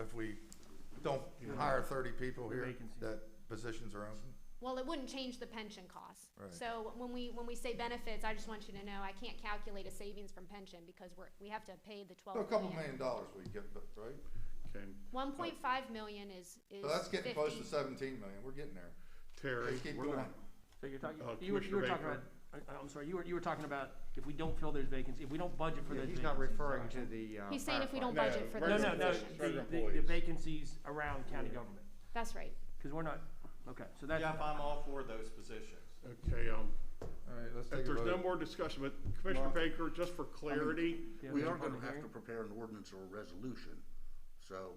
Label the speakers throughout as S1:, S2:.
S1: if we don't hire thirty people
S2: The
S1: here,
S2: vacancy.
S1: that positions are open?
S3: Well, it wouldn't change the pension costs.
S1: Right.
S3: So when we, when we say benefits, I just want you to know, I can't calculate a savings from pension because we're, we have to pay the twelve
S1: A
S3: million.
S1: couple million dollars we get, but, right?
S4: Okay,
S3: One point five million is, is
S1: So that's getting close to
S3: 50.
S1: seventeen million, we're getting there.
S4: Terry,
S1: Let's keep
S4: we're
S1: going.
S4: not-
S2: So you're talking,
S4: Uh,
S2: you were, you were
S4: Commissioner
S2: talking about,
S4: Baker.
S2: I- I'm sorry, you were, you were talking about if we don't fill those vacancies, if we don't budget for
S5: Yeah,
S2: those vacancies.
S5: He's not referring to
S2: sorry.
S5: the, uh.
S3: He's saying if we
S5: firefighter.
S3: don't budget for
S4: No,
S2: No,
S3: those
S2: no, no,
S3: positions.
S4: Regular
S2: the- the, the
S4: employees.
S2: vacancies around county government,
S3: That's right.
S2: because we're not, okay, so that's.
S6: Jeff, I'm all for those positions.
S4: okay, um,
S1: All right, let's take
S4: if
S1: a
S4: there's no
S1: vote.
S4: more discussion, but Commissioner
S1: Mark.
S4: Baker, just for clarity,
S2: yeah,
S7: We
S2: there's a
S7: are gonna
S2: public
S7: have to
S2: hearing.
S7: prepare an ordinance or a resolution, so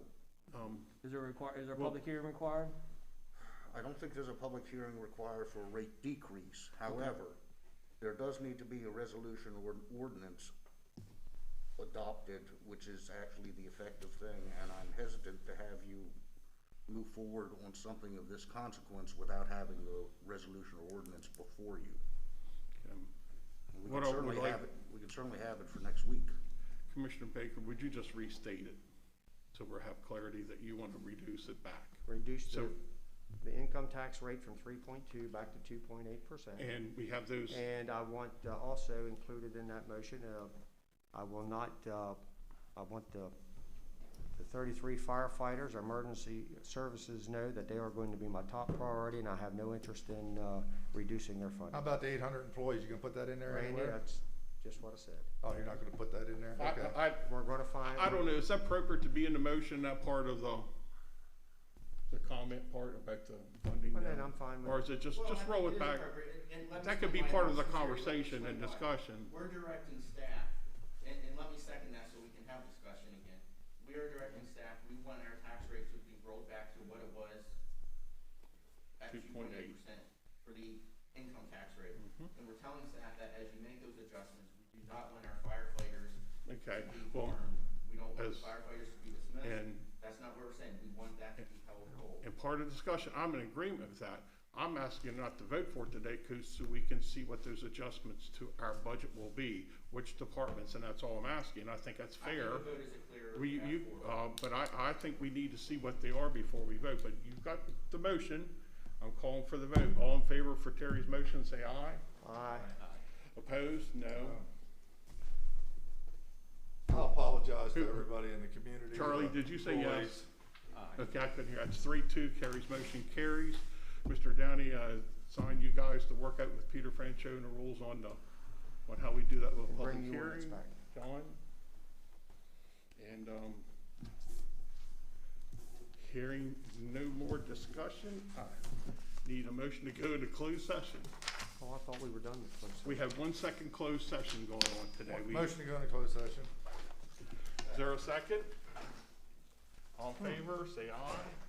S4: um,
S2: Is there require, is there a
S4: Well-
S2: public hearing required?
S7: I don't think there's a public hearing required for a rate decrease. However, there does need to be a resolution or an ordinance adopted, which is actually the effective thing, and I'm hesitant to have you move forward on something of this consequence without having the resolution or ordinance before you.
S4: um,
S7: We
S4: What
S7: can
S4: I would
S7: certainly
S4: like-
S7: have it, we can certainly have it for next week.
S4: Commissioner Baker, would you just restate it? So we have clarity that you want to reduce it back.
S5: Reduce the,
S4: So-
S5: the income tax rate from three point two back to two point eight percent.
S4: And we have those,
S5: And I want uh, also included in that motion, uh, I will not, uh, I want the, the thirty-three firefighters, emergency services know that they are going to be my top priority and I have no interest in, uh, reducing their
S1: How
S5: funding.
S1: about the eight hundred employees, you gonna put that in there
S5: Randy,
S1: anywhere?
S5: that's just what I said.
S1: Oh, you're not gonna put that in there?
S4: I,
S1: Okay.
S4: I,
S5: We're gonna find.
S4: I don't know, is that appropriate to be in the motion, that part of the, the comment part about the funding?
S5: Well, then
S4: now?
S5: I'm fine with
S4: Or is it just,
S8: Well, I
S4: just roll it
S8: think is
S4: back?
S8: appropriate, and- and let me
S4: That could be
S8: explain
S4: part
S8: why.
S4: of the
S8: Since you're-
S4: conversation and
S8: explain why.
S4: discussion.
S8: We're directing staff, and, and let me second that so we can have discussion again. We are directing staff, we want our tax rate to be rolled back to what it was at two point eight
S4: 2.8.
S8: percent for the income tax rate.
S4: Mm-hmm.
S8: And we're telling staff that as you make those adjustments, we do not want our firefighters to
S4: Okay,
S8: be
S4: well,
S8: harmed. We don't want
S4: as-
S8: firefighters to be dismissed.
S4: and
S8: That's not what we're saying. We want that to be held whole.
S4: And part of the discussion, I'm in agreement with that. I'm asking not to vote for it today, 'cause so we can see what those adjustments to our budget will be, which departments, and that's all I'm asking. I think that's
S8: I think
S4: fair.
S8: the vote is a clear
S4: We,
S8: path
S4: you,
S8: forward.
S4: uh, but I, I think we need to see what they are before we vote, but you've got the motion. I'm calling for the vote. All in favor for Terry's motion, say aye.
S5: it. Aye.
S4: Opposed? No.
S1: I apologize to
S4: Who-
S1: everybody in the community.
S4: Charlie,
S1: but
S4: did you say yes?
S1: employees-
S4: Okay, I couldn't hear. That's three, two, Carrie's motion carries. Mr. Downey, uh, signed you guys to work out with Peter Francho and the rules on the, on how we do that with
S5: And
S4: public
S5: bring the ordinance
S4: hearing.
S5: back.
S4: John? And, um, hearing no more discussion, I need a motion to go into closed session.
S5: Oh, I thought we were done with closed session.
S4: We have one second closed session going on today. We-
S1: Motion to go into closed session.
S4: Is there a second? All in favor, say aye.